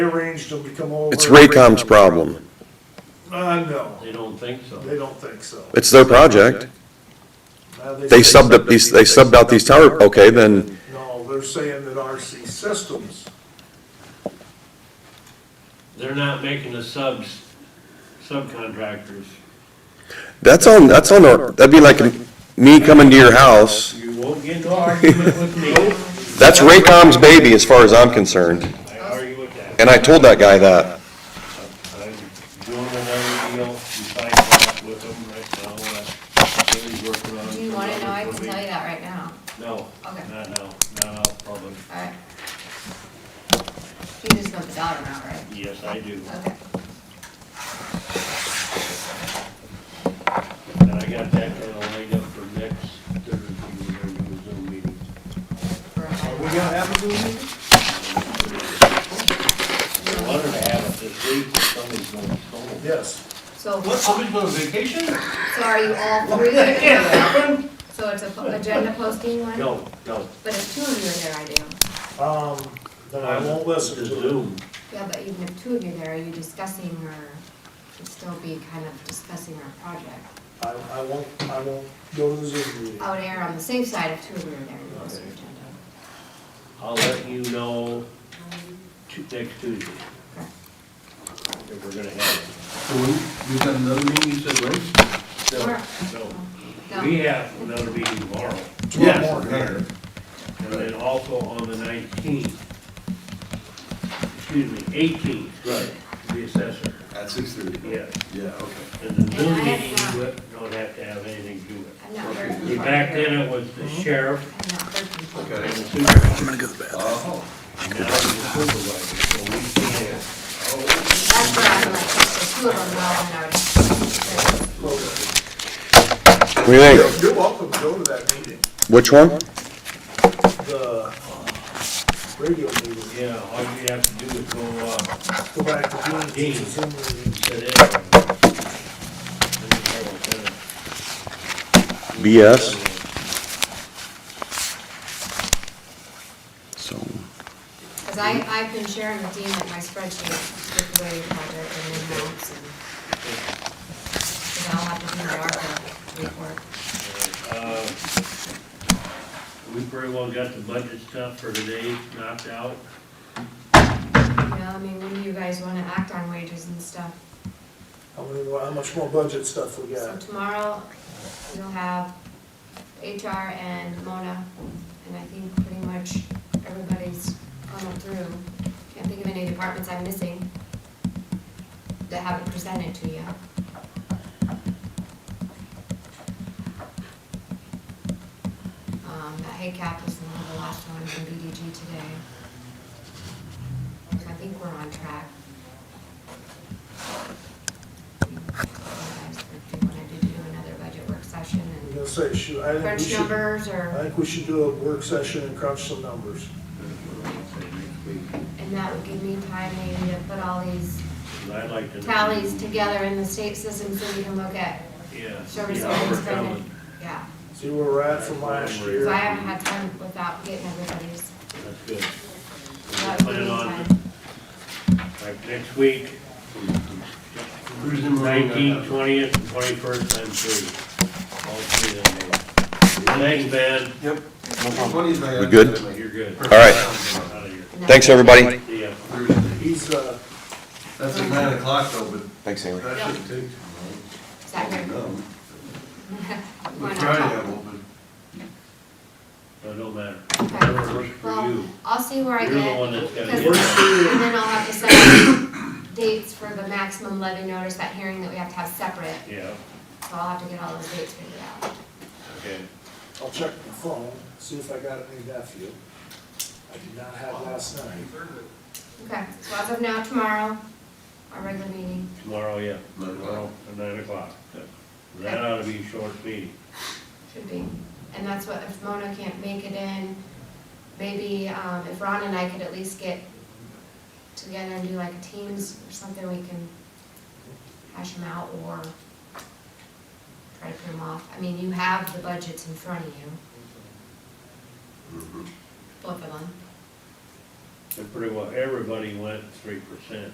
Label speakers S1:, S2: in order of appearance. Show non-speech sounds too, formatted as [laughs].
S1: They arranged them to come over.
S2: It's Raycom's problem.
S1: Uh, no,
S3: They don't think so.
S1: they don't think so.
S2: It's their project.
S1: Uh,
S2: They subbed up these, they subbed out these tower, okay, then,
S1: No, they're saying that RC Systems,
S3: They're not making the subs, subcontractors.
S2: that's on, that's on, our- that'd be like me coming to your house.
S3: You won't get no argument with me.
S2: That's Raycom's baby as far as I'm concerned,
S3: I argue with that.
S2: and I told that guy that.
S3: I'm doing another deal, besides that with them right now. uh, Billy's working on.
S4: Do you wanna know? I can tell you that right now.
S3: No,
S4: Okay.
S3: not now, not out public.
S4: Alright. You just know the dollar amount, right?
S3: Yes, I do.
S4: Okay.
S3: And I got that kind of lined up for next Thursday, we're gonna do a Zoom meeting.
S4: For
S1: are
S4: a-
S1: we gonna have a new meeting?
S3: I wanted to have it this week, but somebody's going to school.
S1: Yes.
S4: So,
S3: What, somebody's going on vacation?
S4: so are you
S3: [laughs]
S4: all three gonna do it? So it's a po- agenda posting one?
S3: No, no.
S4: But if two of you are there, I do.
S1: Um, then I won't listen
S3: The
S1: to it.
S3: Zoom.
S4: Yeah, but even if two of you are there, are you discussing or, it'd still be kind of discussing our project?
S1: I, I won't, I won't go to the Zoom meeting.
S4: I would err on the safe side if two of you are there, you post your agenda.
S3: I'll let you know tu- next Tuesday
S4: Okay.
S3: if we're gonna have
S5: So we, we got another meeting, you said, right?
S3: it. No,
S4: Sure.
S3: No, we have another meeting tomorrow,
S1: Tomorrow morning.
S5: There.
S3: and then also on the nineteenth, excuse me, eighteenth. Right. The assessor,
S5: At six thirty?
S3: yeah.
S5: Yeah, okay.
S3: And the Zoom
S4: And I have uh,
S3: meeting, you don't have to have anything to do with
S4: I'm not very.
S3: it. Back then, it was the
S4: Mm-hmm.
S3: sheriff
S4: I'm not very.
S3: and the
S5: Okay.
S3: supervisor,
S5: Oh,
S3: now it's the supervisor, so we can't.
S4: That's where I'm like, if two of them well, then I
S2: What
S4: would.
S2: do you think?
S1: You're welcome to go to that meeting,
S2: Which one?
S1: the uh, radio meeting.
S3: Yeah, all you have to do is go, uh,
S1: Go back to June,
S3: Dean.
S1: Zoom meeting.
S3: today. Yes.
S2: BS? So,
S4: Cause I, I've been sharing with Dean like my spreadsheet with the way you project and then maps and. Cause I'll have to do the ARPA report.
S3: Uh, We pretty well got the budget stuff for today knocked out.
S4: You know, I mean, when do you guys wanna act on wages and stuff?
S1: How many, more- how much more budget stuff we
S4: So
S1: got?
S4: tomorrow, you'll have HR and Mona, and I think pretty much everybody's gone through. Can't think of any departments I'm missing that haven't presented to you. Um, that HACAP was one of the last one from BDG today. So I think we're on track. You guys If you wanted to do another budget work session
S1: I'm
S4: and
S1: gonna say, shoot, I think we
S4: crunch
S1: should,
S4: numbers or.
S1: I think we should do a work session and crunch some numbers.
S4: And that would give me time maybe to put all these
S3: And I'd like to. know-
S4: tallies together in the state system so we can look at
S3: Yeah.
S4: service
S3: yeah,
S4: areas
S3: we're coming.
S4: spending. Yeah,
S1: See where we're at from last year.
S4: so I haven't had time without getting everybody's,
S3: That's good.
S4: without
S3: Put it
S4: giving
S3: on,
S4: time.
S3: like, next week,
S5: Cruising around.
S3: nineteenth, twentieth, and twenty-first, I'm free. All three of them. Thanks, man.
S5: Yep. Funny is I-
S2: We good?
S3: You're good.
S2: all right.
S3: Out of here.
S4: And
S2: Thanks,
S4: that's-
S2: everybody.
S3: See ya.
S5: Thursday.
S1: He's, uh,
S5: That's at nine o'clock though, but
S2: Thanks, Amy.
S5: that shouldn't take
S4: Is
S5: too
S4: that good?
S5: long.
S4: Why
S5: No.
S4: not?
S5: Friday I'm open.
S3: It don't Uh, matter.
S4: Okay.
S3: Whatever works for
S4: Well,
S3: you.
S4: I'll see where I
S3: You're the one
S4: get,
S3: that's gotta
S4: because-
S3: get it.
S4: and then I'll have to set up dates for the maximum levy notice, that hearing that we have to have separate,
S3: Yeah,
S4: so I'll have to get all those dates figured out.
S3: okay.
S1: I'll check my phone, see if I got any nephew. I did not have last night.
S4: Okay, so as of now, tomorrow, our regular meeting.
S3: Tomorrow, yeah.
S5: Nine o'clock.
S3: Tomorrow at nine o'clock. That ought to be a short meeting.
S4: Should be. And that's what, if Mona can't make it in, maybe um, if Ron and I could at least get together and do like a teams or something, we can hash them out or try to put them off. I mean, you have the budgets in front of you,
S5: Mhm.
S4: both of them.
S3: and pretty well everybody went three percent.